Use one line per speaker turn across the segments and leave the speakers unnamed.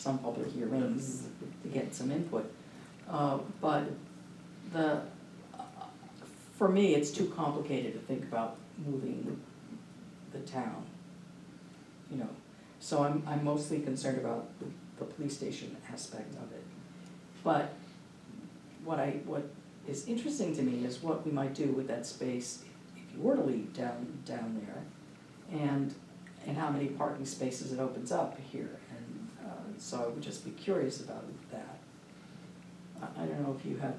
some public hearings to get some input. Uh, but the, for me, it's too complicated to think about moving the town. You know, so I'm, I'm mostly concerned about the, the police station aspect of it. But what I, what is interesting to me is what we might do with that space if you were to leave down, down there. And, and how many parking spaces it opens up here, and, uh, so I would just be curious about that. I, I don't know if you have,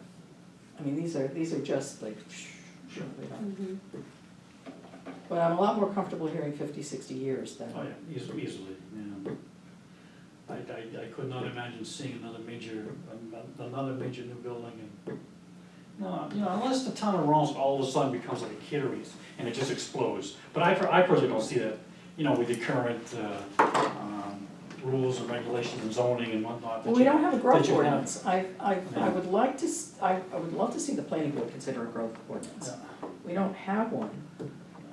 I mean, these are, these are just like, sure, they don't,
Mhm.
but I'm a lot more comfortable hearing fifty, sixty years than.
Oh, yeah, eas- easily, yeah. I, I, I could not imagine seeing another major, an- another major new building and, no, you know, unless the town of Rollins all of a sudden becomes like a Kitteries and it just explodes. But I, per- I personally don't see that, you know, with the current, uh, um, rules and regulations and zoning and whatnot. that
Well, we
you-
don't have a growth
that you have.
ordinance, I, I, I
Yeah.
would like to, s- I, I would love to see the planning board consider a growth ordinance.
Yeah.
We don't have one,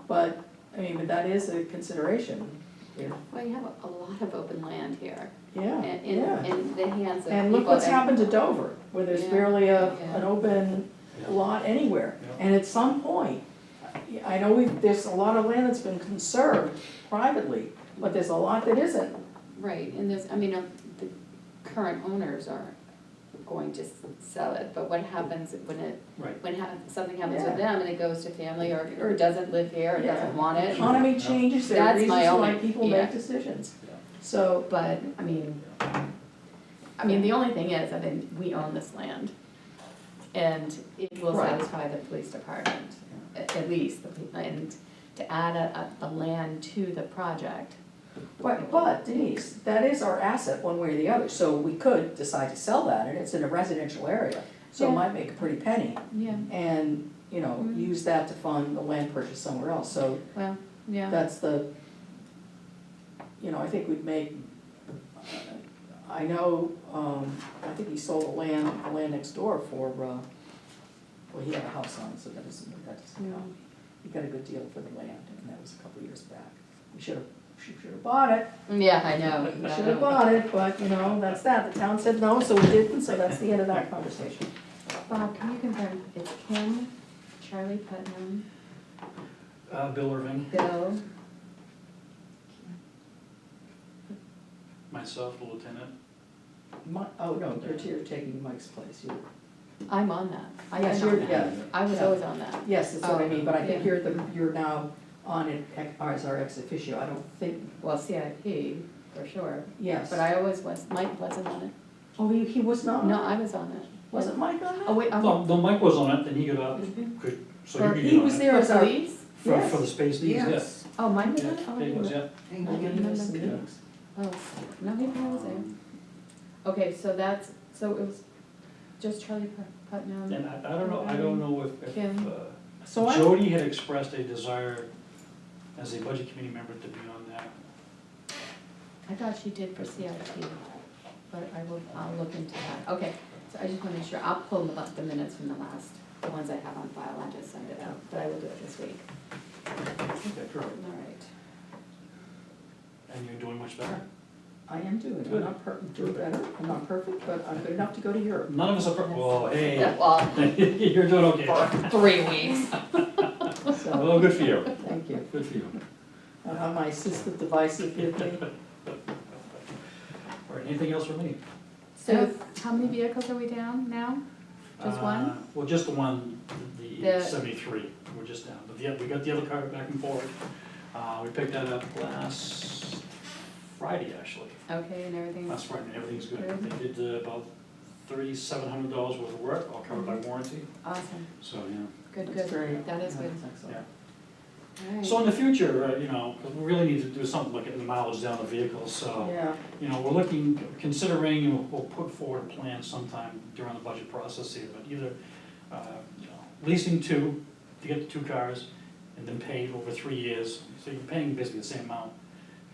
but, I mean, but that is a consideration, yeah,
Well, you have a- a lot of open land here,
Oh, yeah.
and in, in the hands of people.
And look what's
that-
happened to Dover, where there's
Yeah,
barely a,
yeah.
an open
Yeah.
lot anywhere.
Yeah.
And at some point, I- I know we, there's a lot of land that's been conserved privately, but there's a lot that isn't.
Right, and there's, I mean, uh, the current owners are going to s- sell it, but what happens when it,
Right,
when ha- something happens
Yeah.
to them and it goes to family or, or doesn't live here or
Yeah.
doesn't want it?
Economy changes, there are
That's my
reasons why
only-
people
yeah.
make decisions.
Yeah.
So,
But, I mean, I mean, the only thing is, I mean, we own this land. And it will
Right.
satisfy the police department, a- at, least, the pe- and to add a, a, a land to the project.
but, but Denise, that is our asset one way or the other, so we could decide to sell that, and it's in a residential area, so it
Yeah.
might make a pretty penny.
Yeah,
And, you know,
Mm.
use that to fund the land purchase somewhere else, so
well, yeah.
that's the, you know, I think we'd make, I know, um, I think he sold the land, the land next door for, uh, well, he had a house on, it, so that doesn't, that doesn't count. He got a good deal for the land, and that was a couple of years back. We should have, should have bought it,
Yeah, I know.
we should have bought it, but, you know, that's that. The town said no, so we didn't, so that's the end of that conversation.
Bob, can you confirm, it's Kim, Charlie Putnam,
uh, Bill Irving,
Bill,
myself, the lieutenant,
Mi- oh, no, you're, you're taking Mike's place, you.
I'm on that, I
Yes,
am
you're-
on that,
yeah.
I was
yeah.
always on that.
Yes, that's what I mean, but I think
Oh,
you're the, you're now on it ex- as our ex officio, I don't think,
Well, CIP, for sure,
yes.
but I always was, Mike wasn't on it,
Oh, he, he was not?
no, I was on it.
Wasn't Mike on
Oh,
that?
wait, I'm.
well, though Mike was on it, then he got out,
Mhm.
could, so
Well,
you could get on it.
He was there as our.
Please?
For,
Yes.
for the space needs, yes.
Oh, mine was
Yeah,
on it? Oh,
it was,
I
yeah.
And he gave us some meetings.
didn't- Oh, no, he probably was there.
Um,
Okay, so that's, so it was just Charlie Put- Putnam.
And I, I don't know, I don't know if, if,
Kim.
uh,
So I,
Jody had expressed a desire as a budget committee member to be on that.
I thought she did for CIP, but I will, I'll look into that. Okay, so I just wanna make sure, I'll pull the, the minutes from the last, the ones I have on file, I just send it out, but I will do it this week.
Okay,
All
correct.
right.
And you're doing much better.
I am doing, I'm
Good.
not per, doing better, I'm not perfect, but I'm good enough to go to Europe.
None of us are, per- well, hey,
Well,
you're doing okay.
for three weeks.
So,
Well, good for you,
thank you.
good for you.
I have my assistive devices with me.
All right, anything else for me?
So how many vehicles are we down now? Just one?
Uh, Well, just the one, the
The-
seventy-three, we're just down, but the, oth- we got the other car back and forth. Uh, we picked that up last Friday, actually.
Okay, and everything's,
That's right, and everything's good.
Good.
They did uh, about thirty-seven hundred dollars worth of work, all covered by warranty,
awesome,
so, yeah.
good,
That's very-
good, that is good.
that's excellent.
Yeah.
All right.
So in the future, uh, you know, 'cause we really need to do something like getting the mileage down the vehicles, so,
Yeah,
you know, we're looking, considering, and we'll- we'll put forward a plan sometime during the budget process here, but either, uh, you know, leasing two, to get the two cars, and then pay over three years, so you're paying basically the same amount,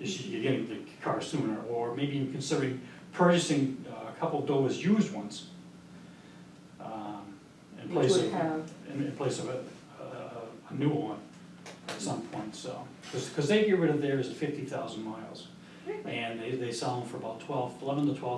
as you- you're getting the car sooner, or maybe even considering purchasing uh, a couple of Dover's used ones. um, In
which
place
would
of,
have,
in in place of a, uh, a- a new one at some point, so. Because they get rid of theirs at fifty thousand miles,
Right, right.
and they, they sell them for about twelve, eleven to twelve